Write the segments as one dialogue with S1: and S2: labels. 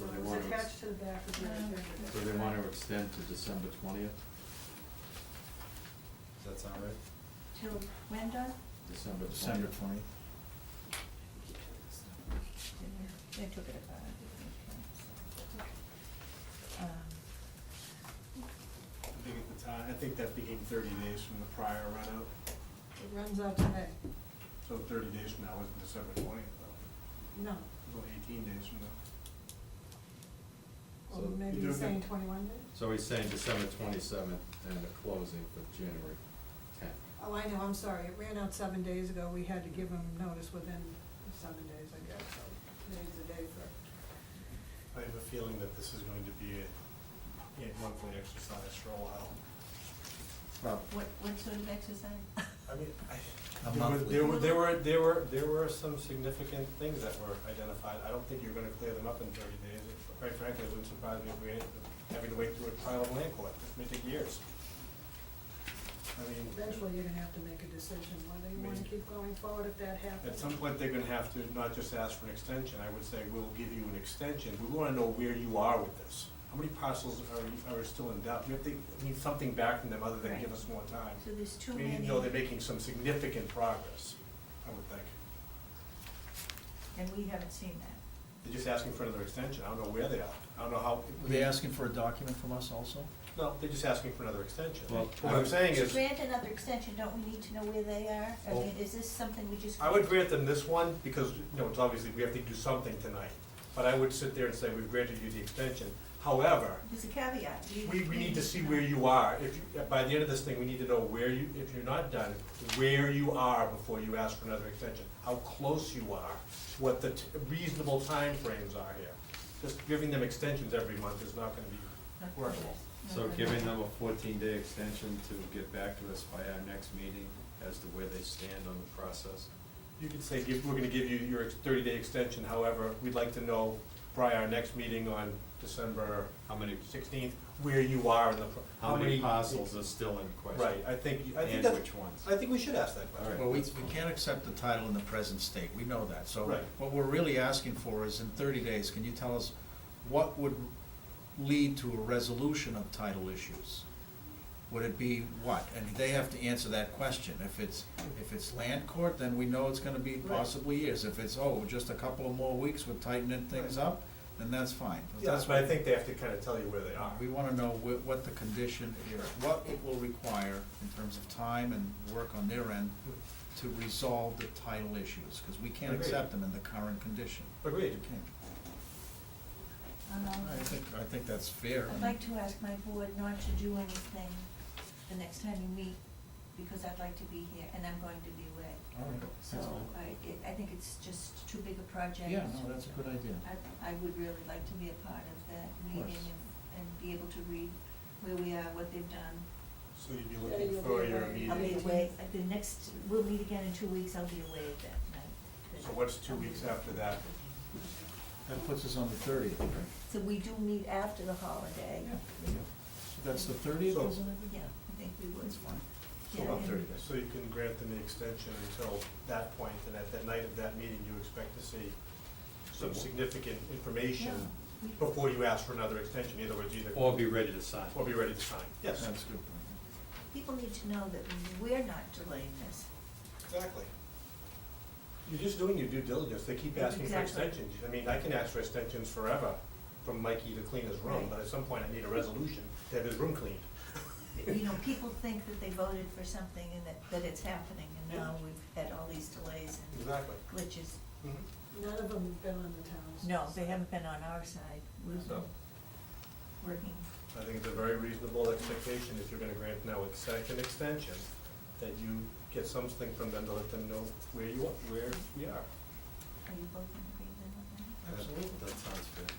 S1: attached to the back of your agenda.
S2: So they wanna extend to December twentieth,
S3: Does that sound right?
S4: Till when, Doug?
S2: December twentieth.
S5: December twentieth.
S4: They took it about. okay. Um,
S6: I think at the time, I think that became thirty days from the prior run out,
S1: It runs out today.
S6: so thirty days from now isn't December twentieth, though.
S1: No,
S6: It's only eighteen days from now.
S1: or
S2: So-
S1: maybe
S6: You
S1: you're
S6: don't
S1: saying
S6: think-
S1: twenty-one days?
S2: So he's saying December twenty-seventh and the closing for January tenth.
S1: Oh, I know, I'm sorry, it ran out seven days ago, we had to give them notice within seven days, I guess, so today's the day for.
S6: I have a feeling that this is going to be a, a monthly exercise for a while.
S5: Well,
S4: What, what sort of exercise?
S6: I mean, I,
S5: A
S6: there were,
S5: monthly.
S6: there were, there were, there were, there were some significant things that were identified. I don't think you're gonna clear them up in thirty days. Quite frankly, it wouldn't surprise me if we ended up having to wait through a trial of land court. This may take years. I mean.
S1: Eventually, you're gonna have to make a decision whether you wanna
S6: Me.
S1: keep going forward if that happens.
S6: At some point, they're gonna have to not just ask for an extension, I would say, we'll give you an extension, we wanna know where you are with this. How many parcels are, are still in doubt, we have to, we need something back from them other than give us more time.
S4: So there's too
S6: We
S4: many.
S6: need to know they're making some significant progress, I would think.
S4: And we haven't seen that.
S6: They're just asking for another extension, I don't know where they are, I don't know how.
S5: Were they asking for a document from us also?
S6: No, they're just asking for another extension.
S2: Well,
S6: What I'm saying
S4: To
S6: is.
S4: grant another extension, don't we need to know where they are? I
S6: Well-
S4: mean, is this something we just?
S6: I would grant them this one, because, you know, it's obviously, we have to do something tonight. But I would sit there and say, we've granted you the extension, however,
S4: There's a caveat. You-
S6: we, we
S4: you
S6: need to see where you are. If, you- by the end of this thing, we need to know where you, if you're not done, where you are before you ask for another extension, how close you are, what the t- reasonable timeframes are here. Just giving them extensions every month is not gonna
S4: Not
S6: be workable.
S2: So giving them a fourteen-day extension to get back to us by our next meeting as to where they stand on the process.
S6: You could say, give, we're gonna give you your thirty-day extension, however, we'd like to know prior our next meeting on December
S2: How many,
S6: sixteenth, where you are in the, pro-
S2: how many parcels are still in question?
S6: Right, I think, I think
S2: And
S6: that's.
S2: which ones?
S6: I think we should ask that question.
S2: All right.
S5: Well, we, we can't accept the title in the present state, we know that, so
S6: Right.
S5: what we're really asking for is in thirty days, can you tell us what would lead to a resolution of title issues? Would it be what? And they have to answer that question. If it's, if it's land court, then we know it's gonna be
S6: Right.
S5: possibly years. If it's, oh, just a couple of more weeks, we're tightening things
S6: Right.
S5: up, then that's fine.
S6: Yes, but I think they have to kind of tell you where they are.
S5: Uh, We wanna know what, what the condition is, what it will require in terms of time and work on their end to resolve the title issues, cause we can't
S6: Agreed.
S5: accept them in the current condition.
S6: Agreed.
S5: We can't.
S4: Um,
S5: I think, I think that's fair.
S4: I'd like to ask my board not to do anything the next time you meet, because I'd like to be here, and I'm going to be away.
S5: All right.
S4: So I, it- I think it's just too big a project.
S5: Yeah, no, that's a good idea.
S4: I, I would really like to be a part of that
S5: Of course.
S4: meeting and, and be able to read where we are, what they've done.
S6: So you'd be
S1: Yeah,
S6: looking
S1: you'll
S6: for
S1: be
S6: your
S1: away.
S4: I'll be
S1: Eighteenth.
S6: immediate,
S4: away, at the next, we'll meet again in two weeks, I'll be away that night.
S6: so what's two weeks after that?
S5: That puts us on the thirtieth, right?
S4: So we do meet after the holiday.
S5: So That's the thirtieth,
S6: So-
S5: isn't it?
S4: Yeah, I think we would.
S5: That's fine.
S4: Yeah,
S5: So about
S4: and-
S5: thirty days.
S6: So you can grant them the extension until that point, and at the night of that meeting, you expect to see some significant information
S4: Yeah.
S6: before you ask for another extension, in other words, either,
S2: Or be ready to sign.
S6: or be ready to sign. Yes,
S5: That's good.
S4: People need to know that we're not delaying this.
S6: exactly. You're just doing your due diligence, they keep asking for
S4: Exactly.
S6: extensions. I mean, I can ask for extensions forever, from Mikey to clean his room,
S4: Right.
S6: but at some point, I need a resolution to have his room cleaned.
S4: You know, people think that they voted for something and that, that it's happening, and now we've had all these delays and
S6: Exactly.
S4: glitches.
S6: Mhm.
S1: None of them have been on the town's.
S4: No, they haven't been on our side. We've been
S6: So.
S4: working.
S6: I think it's a very reasonable expectation if you're gonna grant now a second extension, that you get something from them to let them know where you are, where we are.
S4: Are you both in agreement on that?
S6: Absolutely.
S2: That sounds fair.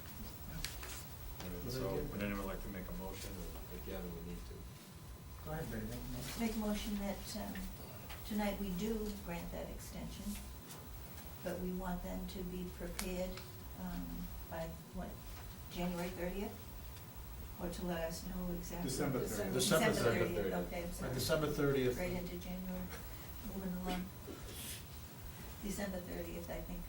S2: And
S5: Good
S2: So,
S5: idea.
S2: would anyone like to make a motion, or again, we need to?
S5: Go ahead, Betty, make a motion.
S4: Make a motion that, um, tonight we do grant that extension, but we want them to be prepared, um, by what, January thirtieth? Or to let us know exactly.
S6: December
S1: December.
S6: thirtieth.
S5: December
S4: thirtieth,
S2: 30th.
S4: okay, I'm sorry.
S5: Right, December thirtieth.
S4: Right into January, moving along. December thirtieth, I think